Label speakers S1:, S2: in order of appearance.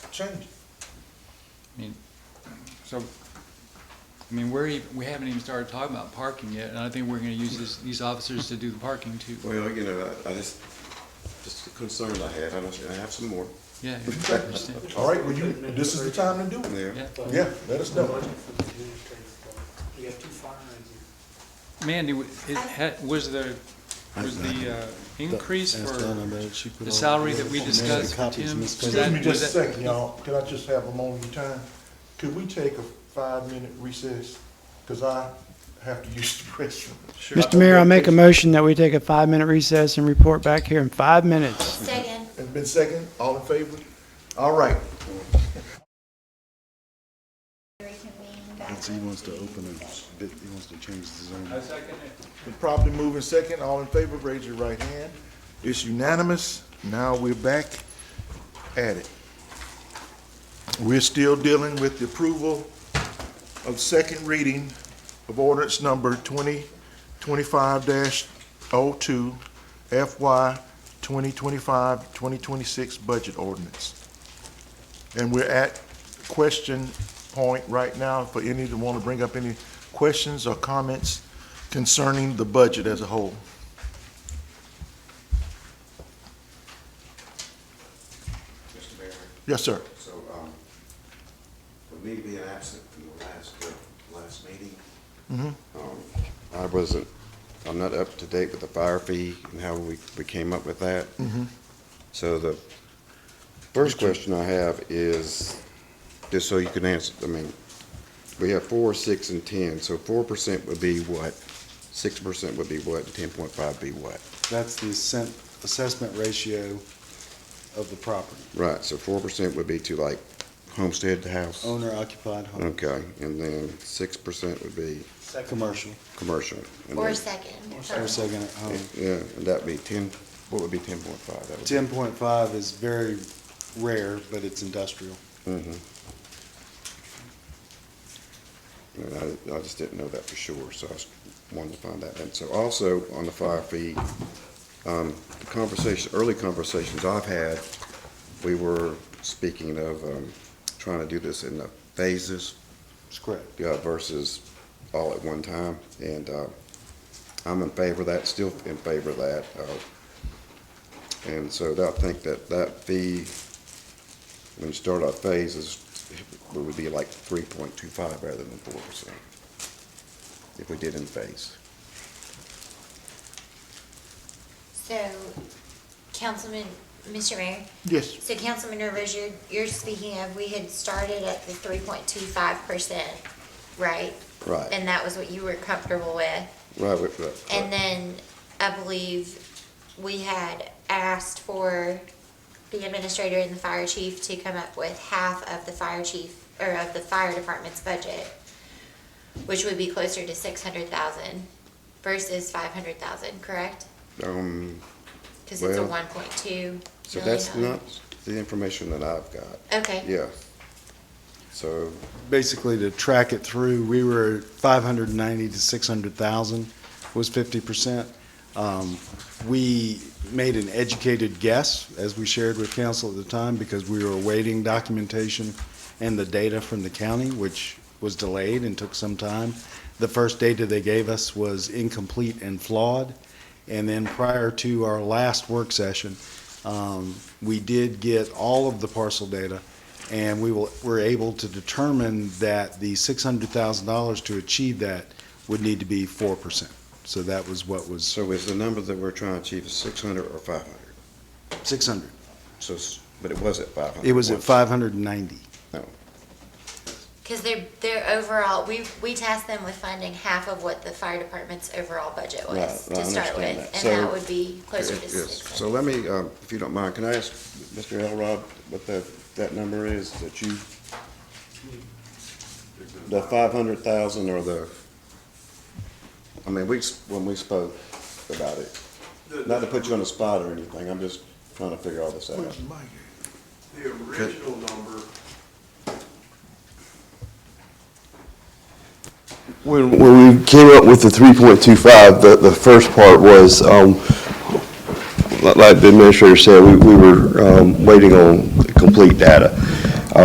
S1: change.
S2: I mean, so, I mean, we're, even- we haven't even started talking about parking yet, and I think we're gonna use this, these officers to do the parking too.
S3: Well, you know, I, I just, just the concerns I have, and I should have some more
S2: Yeah, I understand.
S1: All right, well, you, this is the time to do it.
S3: there.
S2: yeah.
S1: Yeah, let us know.
S4: Budget for the administrative part. We have two fire in
S2: Mandy, w- it had, was the, was the uh, increase
S5: Ask
S2: for,
S5: Donna about it. She put
S2: the
S5: all
S2: salary that we
S5: the
S2: discussed,
S5: copies
S2: Tim?
S5: misplaced.
S2: Was
S1: Excuse me
S2: that-
S1: just a
S2: was that-
S1: second, y'all. Could I just have a moment of your time? Could we take a five-minute recess? Because I have to use the restroom.
S6: Mr. Mayor, I make a motion that we take a five-minute recess and report back here in five minutes.
S7: Second.
S1: It's been second, all in favor? All right.
S5: He wants to open it, he wants to change the zone.
S1: Been properly moving second, all in favor, raise your right hand. It's unanimous. Now we're back at it. We're still dealing with the approval of second reading of ordinance number twenty twenty-five oh 2 FY 2025-2026 budget ordinance. And we're at question point right now for any that want to bring up any questions or comments concerning the budget as a whole.
S3: Mr. Mayor,
S1: Yes, sir.
S3: so, um, with me being absent from the last, uh, last meeting,
S1: Mhm.
S3: um, I wasn't, I'm not up to date with the fire fee and how we, we came up with that. So the first question I have is, just so you can answer, I mean, we have four, six, and ten, so four percent would be what? Six percent would be what, and ten point five be what?
S5: That's the assent- assessment ratio of the property,
S3: Right, so four percent would be to like homestead house?
S5: owner occupied home,
S3: Okay, and then six percent would be
S4: there.
S5: commercial,
S3: commercial. and
S7: Or
S3: then-
S7: second.
S5: or second at home.
S3: Yeah, and that'd be ten, what would be ten point five? That would be-
S5: Ten point five is very rare, but it's industrial.
S3: Mhm. And I, I just didn't know that for sure, so I just wanted to find that. And so also on the fire fee, um, the conversation, early conversations I've had, we were speaking of, um, trying to do this in the phases
S5: It's correct.
S3: uh, versus all at one time. And uh, I'm in favor of that, still in favor of that. uh, And so I think that that fee, when you start out phases, it would be like 3.25 rather than 4%, if we did in phase.
S7: So, Councilman, Mr. Mayor,
S1: Yes.
S7: so Councilman Rivers, you're, you're speaking of, we had started at the three point two five percent, right?
S3: Right,
S7: And that was what you were comfortable with.
S3: right, with the-
S7: And then I believe we had asked for the administrator and the fire chief to come up with half of the fire chief, or of the fire department's budget, which would be closer to six hundred thousand versus five hundred thousand, correct?
S3: um,
S7: Cause it's a
S3: Well,
S7: one point two
S3: So that's
S7: million
S3: not
S7: dollar.
S3: the information that I've got,
S7: Okay,
S3: yeah. So,
S5: basically to track it through, we were at 590 to 600,000 was 50%. Um, We made an educated guess, as we shared with council at the time, because we were awaiting documentation and the data from the county, which was delayed and took some time. The first data they gave us was incomplete and flawed. And then prior to our last work session, um, we did get all of the parcel data, and we will, were able to determine that the six hundred thousand dollars to achieve that would need to be four percent. So that was what was,
S3: so is the number that we're trying to achieve is 600 or 500?
S5: six hundred.
S3: So, s- but it was at five hundred.
S5: It was at five hundred and ninety.
S7: cause their, their overall, we, we tasked them with funding half of what the fire department's overall budget
S3: Right,
S7: was
S3: right, I
S7: to start
S3: understand
S7: with.
S3: that.
S7: And that
S3: So-
S7: would be closer to
S3: Yes,
S7: six
S3: so
S7: hundred.
S3: let me, um, if you don't mind, can I ask Mr. Elrod what that, that number is that you? The five hundred thousand or the, I mean, we, s- when we spoke about it, not to put you on the spot or anything, I'm just trying to figure all this out.
S1: Where's the mic?
S8: The original number,
S9: When, when we came up with the three point two five, the, the first part was, um, li- like the administrator said, we, we were, um, waiting on complete data.